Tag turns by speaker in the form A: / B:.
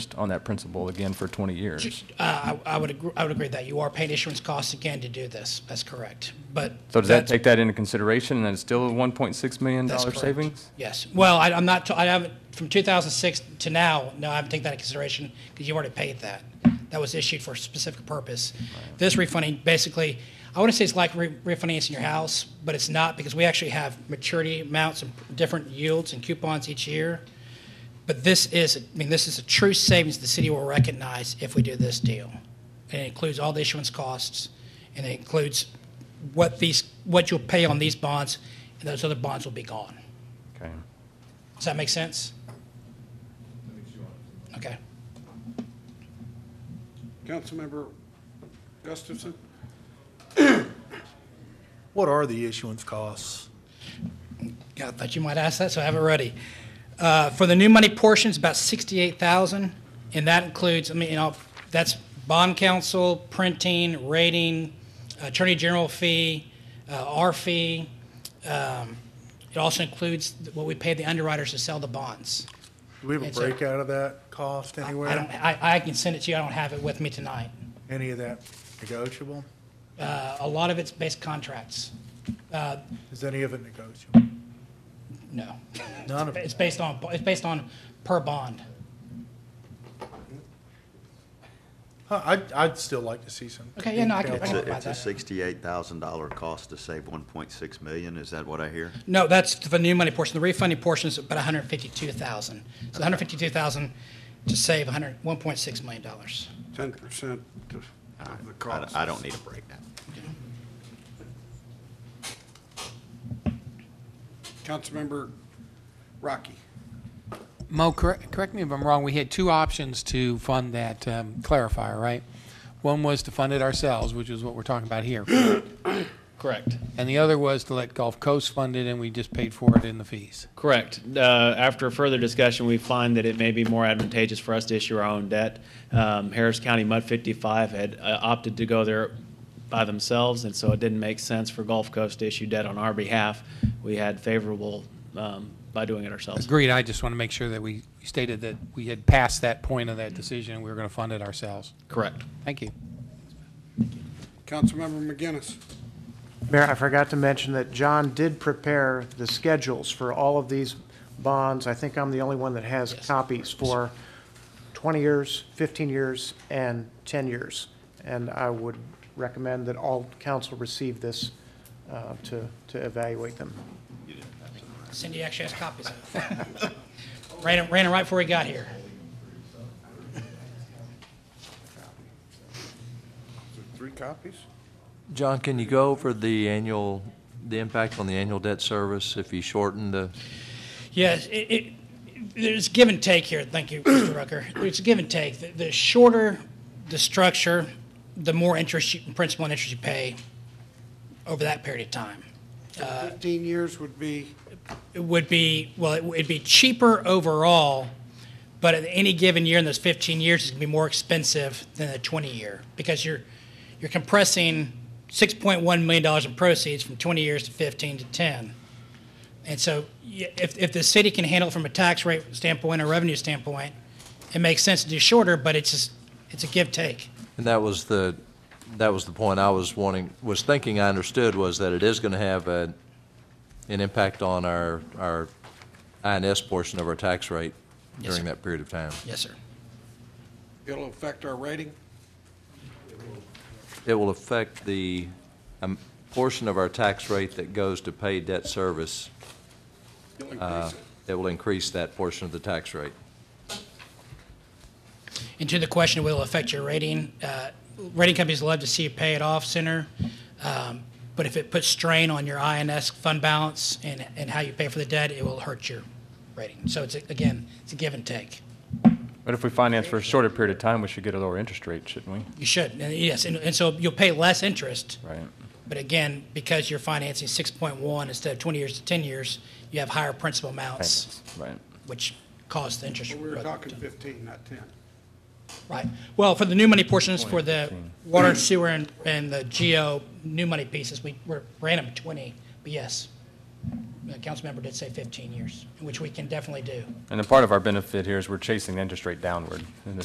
A: on that principle again for 20 years.
B: Uh, I I would, agree- I would agree that you are paying issuance costs again to do this. That's correct. But.
A: So does that
B: that's-
A: take that into consideration, and it's still a $1.6 million
B: that's correct.
A: savings?
B: Yes. Well, I, I'm not, I haven't, from 2006 to now, no, I haven't taken that into consideration because you already paid that. That was issued for a specific purpose. This refunding, basically, I want to say it's like re- refinancing your house, but it's not because we actually have maturity amounts and different yields and coupons each year. But this is, I mean, this is a true savings the city will recognize if we do this deal. And it includes all the issuance costs, and it includes what these, what you'll pay on these bonds, and those other bonds will be gone.
A: Okay.
B: Does that make sense? Okay.
C: Councilmember Gustafson?
D: What are the issuance costs?
B: Yeah, I thought you might ask that, so I have it ready. Uh, For the new money portion, it's about 68,000, and that includes, I mean, you know, that's bond counsel, printing, rating, attorney general fee, uh, our fee. Um, It also includes what we pay the underwriters to sell the bonds.
D: Do we have a
B: It's a-
D: breakout of that cost anywhere?
B: I don't, I I can send it to you, I don't have it with me tonight.
D: Any of that negotiable?
B: Uh, A lot of it's based contracts.
D: Is any of it negotiable?
B: No.
D: None of
B: It's
D: it.
B: based on, it's based on per bond.
D: Huh, I'd, I'd still like to see some.
B: Okay, yeah, no, I can- I
D: detail
B: can-
D: on
B: about
E: It's a
B: that.
E: sixty-eight thousand dollar cost to save one point six million, is that what I hear?
B: No, that's the new money portion. The refunding portion is about 152,000. So 152,000 to save 100 $1.6 million. dollars.
C: Ten percent of the
E: I,
C: cost.
E: I don't need a breakdown.
C: Councilmember Rocky?
F: Mo, correct, correct me if I'm wrong, we had two options to fund that um, clarifier, right? One was to fund it ourselves, which is what we're talking about here.
G: Correct.
F: And the other was to let Gulf Coast fund it, and we just paid for it in the fees.
G: Correct. Uh, after further discussion, we find that it may be more advantageous for us to issue our own debt. Um, Harris County Mud 55 had uh, opted to go there by themselves, and so it didn't make sense for Gulf Coast to issue debt on our behalf. We had favorable um, by doing it ourselves.
F: Agreed, I just want to make sure that we stated that we had passed that point of that decision, and we were going to fund it ourselves.
G: Correct.
F: Thank you.
C: Councilmember McGinnis?
H: Mayor, I forgot to mention that John did prepare the schedules for all of these bonds. I think I'm the only one that has copies for 20 years, 15 years, and 10 years. And I would recommend that all council receive this uh, to to evaluate them.
B: Cindy actually has copies of it. Ran it, ran it right before we got here.
C: Three copies?
I: John, can you go over the annual, the impact on the annual debt service if you shorten the,
B: Yes, it, it, there's give and take here. Thank you, Mr. Rucker. There's give and take. The, the shorter the structure, the more interest, you, principal and interest you pay over that period of time.
C: Fifteen years would be,
B: it would be well it would be cheaper overall but at any given year in those 15 years it's going to be more expensive than the 20 year because you're you're compressing 6.1 million dollars in proceeds from 20 years to 15 to 10 and so y- if, if the city can handle it from a tax rate standpoint or revenue standpoint it makes sense to do shorter but it's just it's a give take
I: and that was the, that was the point I was wanting, was thinking I understood was that it is going to have a, an impact on our, our INS portion of our tax rate
B: Yes,
I: during
B: sir.
I: that period of time.
B: yes sir
C: it'll affect our rating?
I: It will affect the um, portion of our tax rate that goes to pay debt service.
C: It'll increase it.
I: It will increase that portion of the tax rate.
B: And to the question, will it affect your rating? Uh, rating companies love to see you pay it off sooner, um, but if it puts strain on your INS fund balance and, and how you pay for the debt, it will hurt your rating. So it's a, again, it's a give and take.
A: But if we finance for a shorter period of time, we should get a lower interest rate, shouldn't we?
B: You should, and yes, and, and so you'll pay less interest.
A: Right?
B: But again, because you're financing 6.1 instead of 20 years to 10 years, you have higher principal amounts,
A: Payments, Right.
B: which cause the interest.
C: We were
B: rate-
C: talking fifteen, not ten.
B: Right. Well, for the new money portions, for the water and sewer and, and the geo new money pieces, we, we're random 20, but yes. the council member did say 15 years, which we can definitely do.
A: And a part of our benefit here is we're chasing the interest rate downward in this